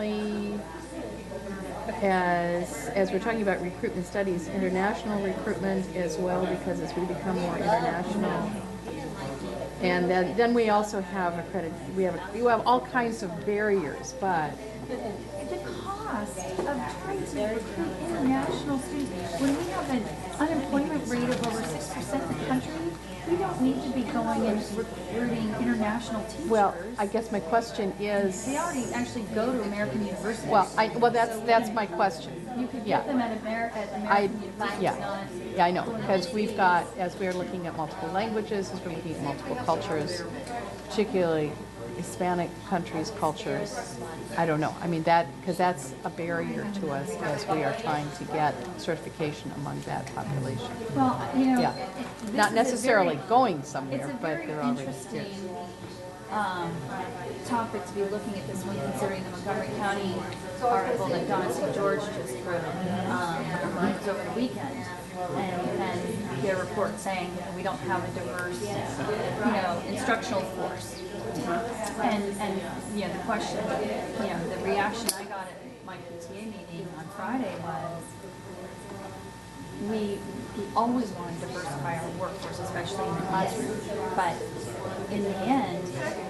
internationally, as, as we're talking about recruitment studies, international recruitment as well, because as we become more international. And then, then we also have accredit, we have, we have all kinds of barriers, but The cost of trying to recruit international students, when we have an unemployment rate of over six percent in the country, we don't need to be going and recruiting international teachers. Well, I guess my question is, They already actually go to American universities. well, I, well, that's, that's my question. You could yeah. get them at America, at I, American universities. yeah, yeah, I know, because we've got, as we're looking at multiple languages, as we're looking at multiple cultures, particularly Hispanic countries' cultures, I don't know, I mean, that, because that's a barrier to us as we are trying to get certification among that population. Well, you know. Yeah, it- this is a not very- necessarily going It's somewhere, a but very they're already here. interesting um, topic to be looking at this one, considering the Montgomery County article that Donna St. George just wrote. Um, it was over the weekend, and, and their report saying you know, we don't have a diverse, you know, instructional force. And and you know the question, you know, the reaction I got at my PTA meeting on Friday was we, we always want to diversify our workforce, especially in the classroom. But in the end,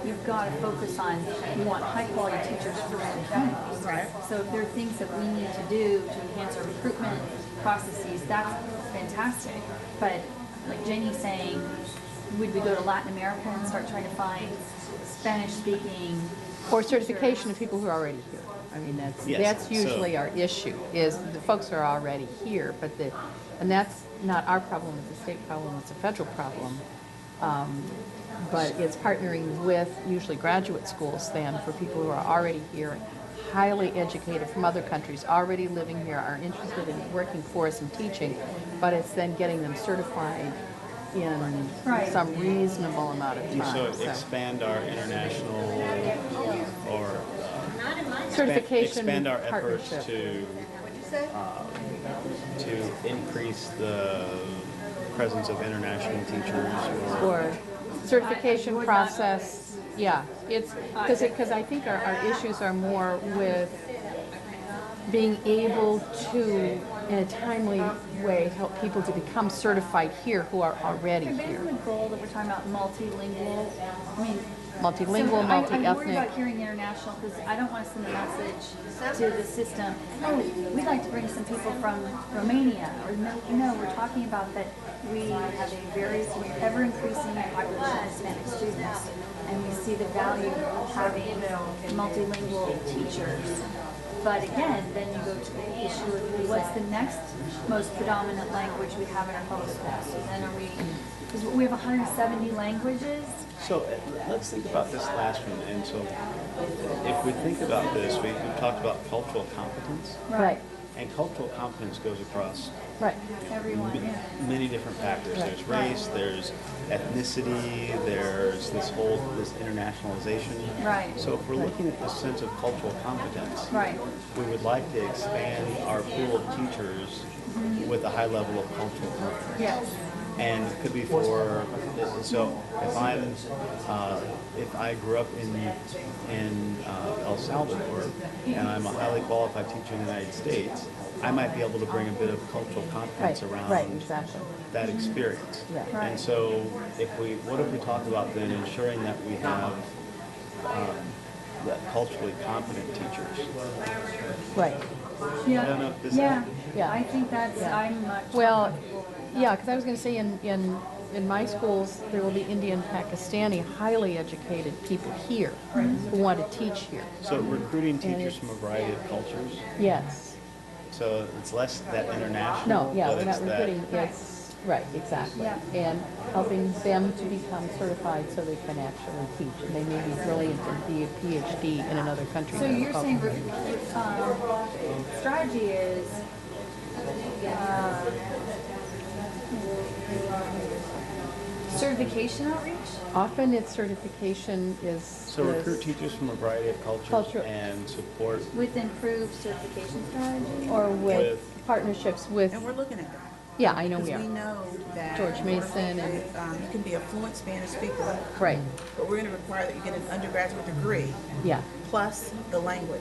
you've got to focus on, you want high quality teachers first and foremost. Right. So if there are things that we need to do to enhance our recruitment processes, that's fantastic. But like Jenny's saying, would we go to Latin America and start trying to find Spanish speaking? Or certification of people who are already here. I mean, that's, Yes, that's so- usually our issue, is the folks are already here, but the, and that's not our problem, it's a state problem, it's a federal problem. Um, But it's partnering with usually graduate schools then for people who are already here, highly educated from other countries, already living here, are interested in working for us and teaching, but it's then getting them certified in Right. some reasonable amount of And so time, so. expand our international or Certification expand our efforts partnership. to um, to increase the presence of international teachers or or certification process, yeah, it's, because, because I think our, our issues are more with being able to, in a timely way, help people to become certified here who are already Okay, Based on the here. goal that we're talking about multilingual, I mean, Multilingual, So I- I'm worried multi-ethnic, about hearing international because I don't want to send a message to the system, oh, we'd like to bring some people from Romania. Or no, no, we're talking about that we have a very ever increasing population of Hispanic students and we see the value of having multilingual teachers. But again, then you go to the issue of what's the next most predominant language we have in our public schools? So then are we, because we have 170 languages. So uh, let's think about this last one. And so if we think about this, we, we talked about cultural competence, right, and cultural competence goes across right, Everyone, m- yeah. many different factors. Right. There's race, there's ethnicity, there's this whole this internationalization. Right. So if we're looking at this sense of cultural competence, Right. we would like to expand our pool of teachers with a high level of cultural competence. Yes. and it could be for so if I'm uh, if I grew up in in uh, El Salvador and I'm a highly qualified teacher in the United States, I might be able to bring a bit of cultural competence right, around right, exactly. that experience. Right. Right. And so if we what if we talk about then ensuring that we have um, that culturally competent teachers? Right, Yeah. don't know if this- yeah. Yeah. I think that's, Yeah. I'm much. Well, yeah, because I was going to say in, in, in my schools, there will be Indian, Pakistani, highly educated people here who want to teach here. So recruiting teachers from a variety of cultures. Yes. So it's less that international. No, yeah, but we're it's not that- recruiting, yes, right, exactly. Yeah. And helping them to become certified so they can actually teach. And they may be brilliant and be a PhD in another country. So than the you're saying, culture. um, strategy is, uh, certification outreach? Often it's certification is. So recruit is- teachers from a variety of cultures Culture- and support, With improved certification strategy? Or with with- partnerships with, And we're looking at that. yeah, I know Because we we are, know that. George Mason and- Um, you can be a fluent Spanish speaker, right, but we're gonna require that you get an undergraduate degree yeah. plus the language.